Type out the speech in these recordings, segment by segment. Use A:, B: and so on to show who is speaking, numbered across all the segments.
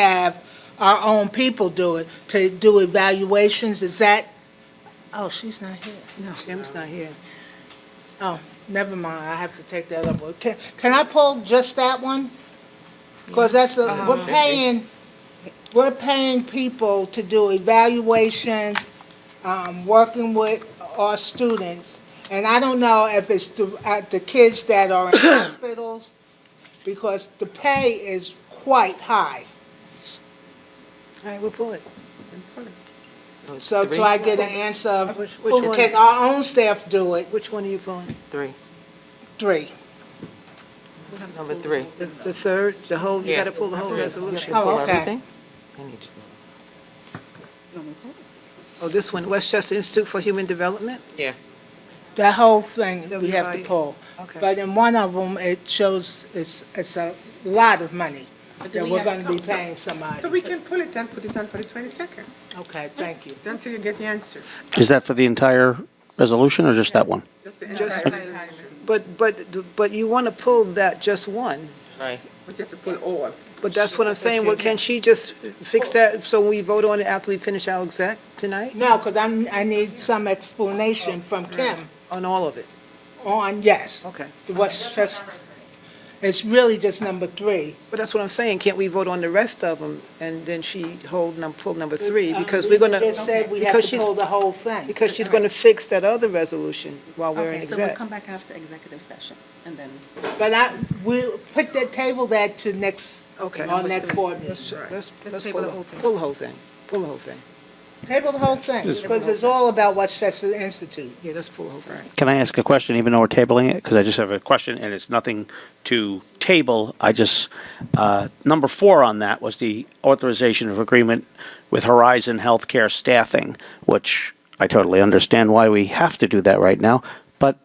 A: have our own people do it, to do evaluations, is that, oh, she's not here, no, Oh,
B: Kim's not here.
A: never mind, I have to take that up. Can, can I pull just that one? Because that's, the-
B: Uh-huh.
A: we're paying, we're paying people to do evaluations, um, working with our students, and I don't know if it's the, uh, the kids that are in hospitals, because the pay is quite high.
B: All right, we'll pull it.
C: it's
A: So
C: three,
A: till I get an answer of,
B: Which- which one?
A: can our own staff do it?
B: Which one are you pulling?
C: Three.
A: Three.
C: Number three.
B: The, the third, the whole, you
C: Yeah.
B: gotta pull the whole
C: Three.
B: resolution.
A: Oh,
C: Pull
A: okay.
C: everything? I need to-
B: Oh, this one, Westchester Institute for Human Development?
A: The whole thing we have to
B: Everybody.
A: pull.
B: Okay.
A: But in one of them, it shows it's, it's a lot of money that
D: we
A: we're
D: have
A: gonna be
D: some- some-
A: paying
D: So
A: somebody.
D: we can pull it then, put it on for the 22nd,
A: Okay, thank you.
D: until you get the answer.
E: Is that for the entire resolution or just that one?
D: That's the
B: Just-
D: entire time,
B: But, but, the- but you wanna pull that just one.
C: Right.
D: but you have to pull all.
B: But that's what I'm saying, well, can she just fix that, so we vote on it after we finish our exec tonight?
A: No, because I'm, I need some explanation from Kim
B: On all of it?
A: on, yes.
B: Okay.
A: What's just, it's really just number three.
B: But that's what I'm saying, can't we vote on the rest of them, and then she hold, num- pull number three? Because we're
A: Uh,
B: gonna,
A: um, We just said we have
B: because
A: to
B: she's-
A: pull the whole thing.
B: because she's gonna fix that other resolution while we're in
F: Okay, so we'll
B: exec.
F: come back after executive session, and then,
A: But I, we'll put that, table that to next,
B: Okay.
A: our next board meeting.
B: Let's, let's,
D: Let's
B: let's
D: table
B: pull,
D: the
B: the-
D: whole thing.
B: pull the whole thing, pull the whole thing.
A: Table the whole thing, because it's all about Westchester Institute.
B: Yeah, let's pull the whole thing.
E: Can I ask a question, even though we're tabling it? Because I just have a question, and it's nothing to table. I just, uh, number four on that was the authorization of agreement with Horizon Healthcare Staffing, which I totally understand why we have to do that right now. But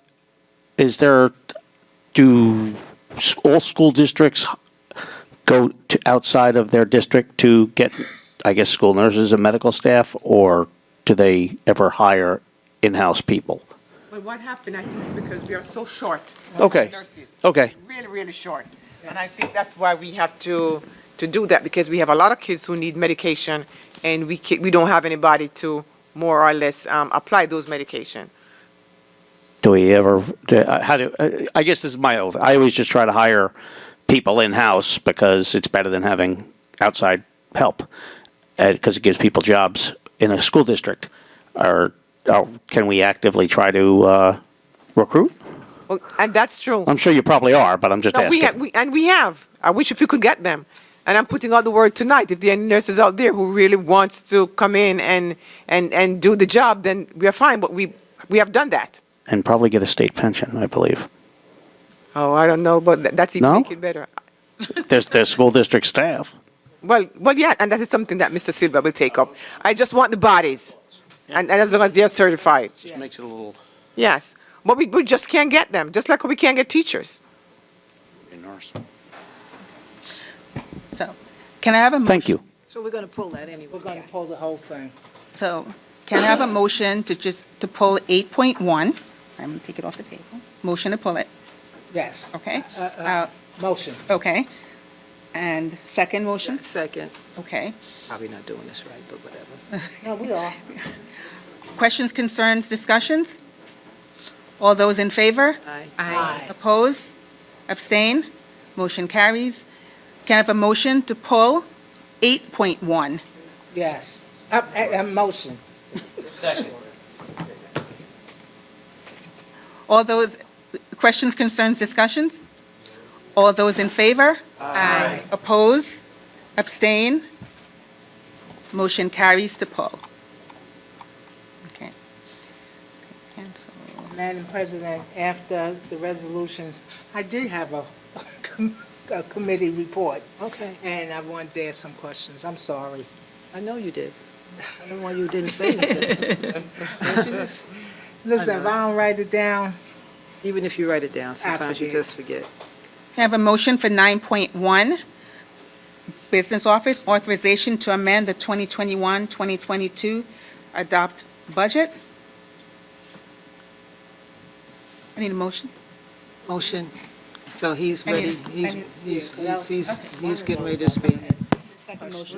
E: is there, do s- all school districts go to outside of their district to get, I guess, school nurses and medical staff? Or do they ever hire in-house people?
D: But what happened, I think, is because we are so short. of
E: Okay.
D: nurses.
E: Okay.
D: Really, really short. And I think that's why we have to, to do that, because we have a lot of kids who need medication, and we, ca- we don't have anybody to more or less um, apply those medication.
E: Do we ever, do- uh, how do, uh, I guess this is my oath. I always just try to hire people in-house because it's better than having outside help. Because it gives people jobs in a school district. Or, or can we actively try to uh, recruit?
D: Well, And that's true.
E: I'm sure you probably are, but I'm just
D: No, we have,
E: asking.
D: we, and we have. I wish if you could get them. And I'm putting out the word tonight. If there are any nurses out there who really wants to come in and and and do the job, then we are fine. But we we have done that.
E: And probably get a state pension, I believe.
D: Oh, I don't know, but tha- that's even
E: No?
D: making better.
E: There's, there's school district staff.
D: Well, well, yeah, and that is something that Mr. Silva will take up. I just want the bodies, and, and as long as they are certified,
C: Just makes it a little.
D: yes. But we, we just can't get them, just like we can't get teachers.
F: so, can I have a? mo-
E: Thank you.
B: So we're gonna pull that anyway.
A: We're gonna pull the whole thing.
F: So, can I have a motion to just, to pull 8.1? I'm going to take it off the table. Motion to pull it,
A: Yes,
F: okay?
A: Uh, uh.
F: Uh,
A: motion.
F: Okay. And second motion?
B: Second,
F: Okay.
B: probably not doing this right, but whatever.
A: No, we are.
F: Questions, concerns, discussions? All those in favor?
B: Aye.
A: Aye.
F: Oppose? Abstain? Motion carries. Can I have a motion to pull 8.1?
A: Yes. Uh, uh, uh, motion.
F: All those, questions, concerns, discussions? All those in favor? Aye. Oppose? Abstain? Motion carries to pull. Okay. Cancel.
A: Madam President, after the resolutions, I did have a, com- a committee report,
B: Okay,
A: and I wanted to ask some questions. I'm sorry.
B: I know you did. I don't know why you didn't say anything,
A: Listen, if I don't write it down,
B: even if you write it down, sometimes you
A: forget.
B: just forget.
F: Can I have a motion for 9.1? Business Office Authorization to amend the 2021-2022 Adopt Budget? I need a motion.
B: Motion, so he's
F: I need-
B: ready,
F: I
B: he's,
F: need-
B: he's, he's, he's- he's getting ready to speak.
F: motion.